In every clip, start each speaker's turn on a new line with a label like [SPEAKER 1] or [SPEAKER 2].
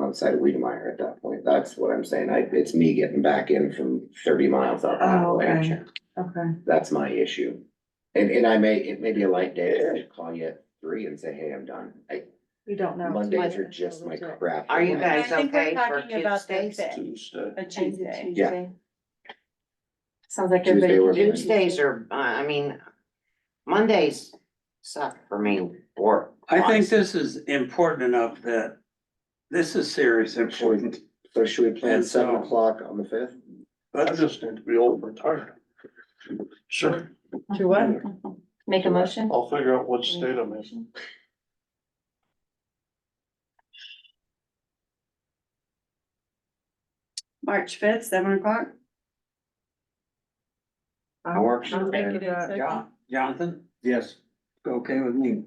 [SPEAKER 1] outside of Wiedemeyer at that point. That's what I'm saying. I, it's me getting back in from thirty miles up.
[SPEAKER 2] Oh, okay.
[SPEAKER 1] Appalachia.
[SPEAKER 2] Okay.
[SPEAKER 1] That's my issue. And, and I may, it may be a light day, I should call you at three and say, hey, I'm done. I,
[SPEAKER 2] You don't know.
[SPEAKER 1] Mondays are just my crap.
[SPEAKER 3] Are you
[SPEAKER 2] I
[SPEAKER 3] guys
[SPEAKER 2] think we're
[SPEAKER 3] okay for
[SPEAKER 2] talking about
[SPEAKER 3] kids'
[SPEAKER 2] the
[SPEAKER 3] days?
[SPEAKER 2] fifth.
[SPEAKER 4] Tuesday.
[SPEAKER 2] A
[SPEAKER 3] Tuesday.
[SPEAKER 2] Tuesday.
[SPEAKER 1] Yeah.
[SPEAKER 2] Sounds like
[SPEAKER 1] Tuesday
[SPEAKER 2] everybody.
[SPEAKER 1] we're
[SPEAKER 2] can do
[SPEAKER 1] fine.
[SPEAKER 3] Tuesdays are, uh, I mean, Mondays suck for me or.
[SPEAKER 4] I think this is important enough that this is serious important.
[SPEAKER 1] So should we plan
[SPEAKER 4] And so-
[SPEAKER 1] seven o'clock on the fifth?
[SPEAKER 4] I just need to be old and tired. Sure.
[SPEAKER 2] To what?
[SPEAKER 5] Make a motion?
[SPEAKER 4] I'll figure out what
[SPEAKER 5] state
[SPEAKER 4] I'm
[SPEAKER 2] March fifth, seven o'clock?
[SPEAKER 3] I work.
[SPEAKER 2] I'll make it in second.
[SPEAKER 3] Yeah.
[SPEAKER 4] Jonathan,
[SPEAKER 1] Yes.
[SPEAKER 4] okay with me?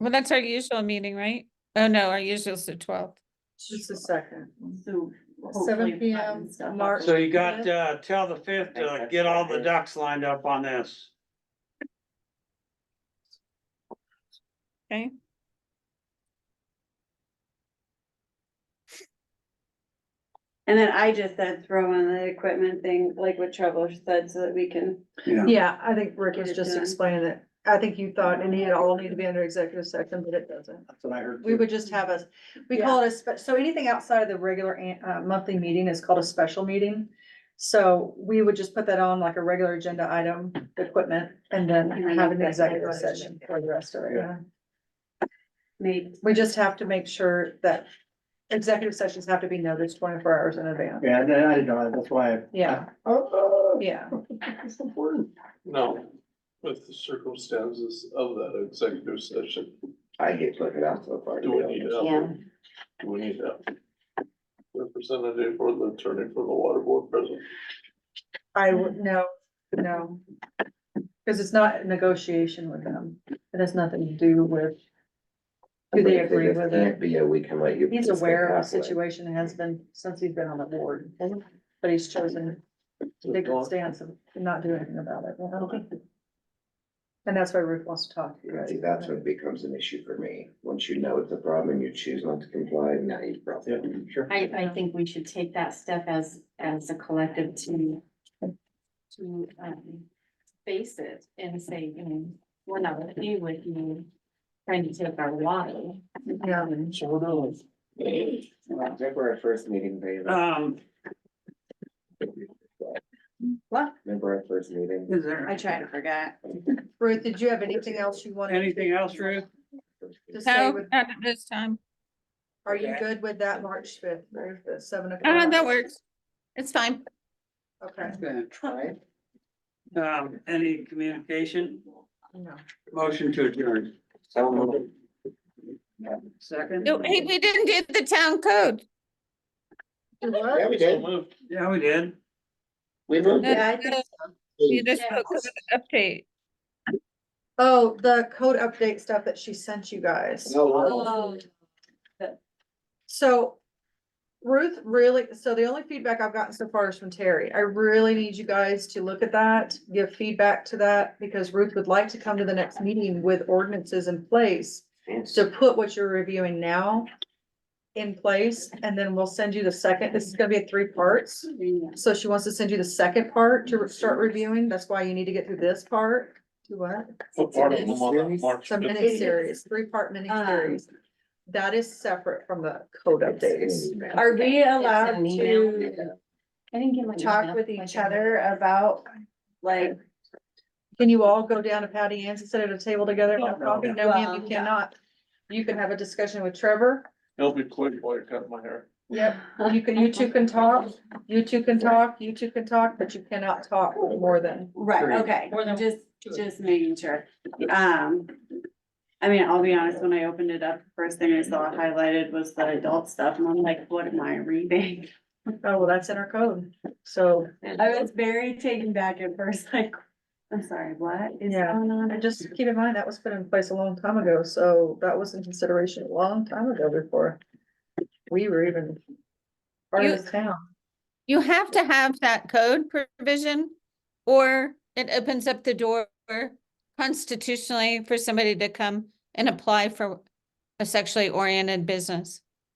[SPEAKER 6] Well, that's our usual meeting, right? Oh, no, our usual's the twelfth.
[SPEAKER 2] Just a second. So. hopefully
[SPEAKER 5] PM,
[SPEAKER 2] stuff up.
[SPEAKER 5] March-
[SPEAKER 4] So you got, uh, till the fifth, uh, get all the ducks lined up on this.
[SPEAKER 6] Okay.
[SPEAKER 7] And then I just said throw in the equipment thing, like what Trevor said, so that we can,
[SPEAKER 4] Yeah.
[SPEAKER 8] Yeah, I think Rick was
[SPEAKER 7] Get it
[SPEAKER 8] just
[SPEAKER 7] done.
[SPEAKER 8] explaining it. I think you thought it needed all need to be under executive session, but it doesn't.
[SPEAKER 4] That's what I heard.
[SPEAKER 8] We would just have us, we call it a, spe- so anything outside of the regular an- uh, monthly meeting is called a special meeting. So we would just put that on like a regular agenda item, equipment, and then
[SPEAKER 7] And then
[SPEAKER 8] have an
[SPEAKER 7] executive
[SPEAKER 8] executive
[SPEAKER 7] session.
[SPEAKER 8] session for the rest of it.
[SPEAKER 4] Yeah.
[SPEAKER 8] yeah.
[SPEAKER 7] maybe,
[SPEAKER 8] We just have to make sure that executive sessions have to be noticed twenty-four hours in advance.
[SPEAKER 9] Yeah, I didn't- I didn't know, that. that's why. I-
[SPEAKER 8] Yeah,
[SPEAKER 9] Oh,
[SPEAKER 8] yeah.
[SPEAKER 9] it's important.
[SPEAKER 10] No, with the circumstances of that executive session,
[SPEAKER 1] I hate looking out so far. to
[SPEAKER 10] do
[SPEAKER 1] be
[SPEAKER 10] we
[SPEAKER 1] honest.
[SPEAKER 10] need
[SPEAKER 3] Yeah.
[SPEAKER 10] a, do we need a representative or the attorney for the water board president?
[SPEAKER 8] I would, no, no. Cause it's not a negotiation with them. It has nothing to do with. Do they
[SPEAKER 1] If
[SPEAKER 8] agree
[SPEAKER 1] just
[SPEAKER 8] with
[SPEAKER 1] Can't
[SPEAKER 8] it?
[SPEAKER 1] be, a we can let you.
[SPEAKER 8] He's aware of the
[SPEAKER 1] Halfway.
[SPEAKER 8] situation and has been since he's been on the board, but he's chosen to take a stance of not doing anything about it. you know? And that's why Ruth wants to talk to you.
[SPEAKER 1] Yeah,
[SPEAKER 8] guys
[SPEAKER 1] see,
[SPEAKER 8] about
[SPEAKER 1] that's
[SPEAKER 8] it.
[SPEAKER 1] when it becomes an issue for me. Once you know it's a problem and you choose not to comply, now you've brought it.
[SPEAKER 9] Sure.
[SPEAKER 3] I, I
[SPEAKER 7] Um,
[SPEAKER 3] think we should take that step as, as a collective to, to, um, face it and say, you know, we're not gonna be with you trying to take our water.
[SPEAKER 8] Yeah.
[SPEAKER 1] Remember our first meeting, babe?
[SPEAKER 7] Uh,
[SPEAKER 4] Um,
[SPEAKER 8] What?
[SPEAKER 1] Remember our first meeting?
[SPEAKER 4] is there
[SPEAKER 7] I tried to forget.
[SPEAKER 8] Ruth, did you have anything else you wanted?
[SPEAKER 4] anything else, Ruth?
[SPEAKER 8] to say
[SPEAKER 6] No,
[SPEAKER 8] with-
[SPEAKER 6] not at this time.
[SPEAKER 8] Are you good with that March fifth, Ruth, at seven o'clock?
[SPEAKER 6] Uh, that works. It's fine.
[SPEAKER 8] Okay,
[SPEAKER 1] Right?
[SPEAKER 4] Um, any communication?
[SPEAKER 8] no.
[SPEAKER 4] Motion to adjourn.
[SPEAKER 1] So,
[SPEAKER 4] Second?
[SPEAKER 6] No, hey, we didn't do the town code.
[SPEAKER 8] You what?
[SPEAKER 1] yeah, we did.
[SPEAKER 4] Yeah, we did.
[SPEAKER 1] We moved. it.
[SPEAKER 6] Yeah, I think You just
[SPEAKER 3] Yeah.
[SPEAKER 6] spoke to the uh, update.
[SPEAKER 8] Oh, the code update stuff that she sent you guys.
[SPEAKER 1] No, no.
[SPEAKER 3] Oh,
[SPEAKER 8] So Ruth really, so the only feedback I've gotten so far is from Terry. I really need you guys to look at that, give feedback to that, because Ruth would like to come to the next meeting with ordinances in place to put what you're reviewing now in place, and then we'll send you the second, this is gonna be a three parts. So she wants to send you the second part to start reviewing. That's why you need to get through this part. Do what?
[SPEAKER 10] What part of them on that March
[SPEAKER 8] Some
[SPEAKER 10] fifth?
[SPEAKER 8] mini series, three part mini
[SPEAKER 7] Um,
[SPEAKER 8] series. That is separate from the code updates.
[SPEAKER 7] Are we
[SPEAKER 3] It's
[SPEAKER 7] allowed
[SPEAKER 3] an email.
[SPEAKER 7] to
[SPEAKER 3] I didn't get my.
[SPEAKER 7] talk
[SPEAKER 3] email.
[SPEAKER 7] with
[SPEAKER 3] I
[SPEAKER 7] each
[SPEAKER 3] don't-
[SPEAKER 7] other about, like,
[SPEAKER 8] Can you all go down to Patty Ann's and sit at a table together and have
[SPEAKER 10] No,
[SPEAKER 8] coffee? No, ma'am, you
[SPEAKER 7] Well,
[SPEAKER 8] cannot. You can have a discussion with Trevor.
[SPEAKER 10] It'll be quick while you cut my hair.
[SPEAKER 8] Yep. You can, you two can talk, you two can talk, you two can talk, but you cannot talk more than.
[SPEAKER 7] right, okay, just, just making sure. Um, I mean, I'll be honest, when I opened it up, first thing I saw highlighted was the adult stuff, and I'm like, what am I reading?
[SPEAKER 8] Oh, well, that's in our code. So
[SPEAKER 7] I was very taken back at first, like, I'm sorry, what is
[SPEAKER 8] Yeah.
[SPEAKER 7] going on?
[SPEAKER 8] and just keep in mind, that was put in place a long time ago. So that was in consideration a long time ago before we were even part
[SPEAKER 6] You-
[SPEAKER 8] of this town.
[SPEAKER 6] You have to have that code provision or it opens up the door constitutionally for somebody to come and apply for a sexually oriented business.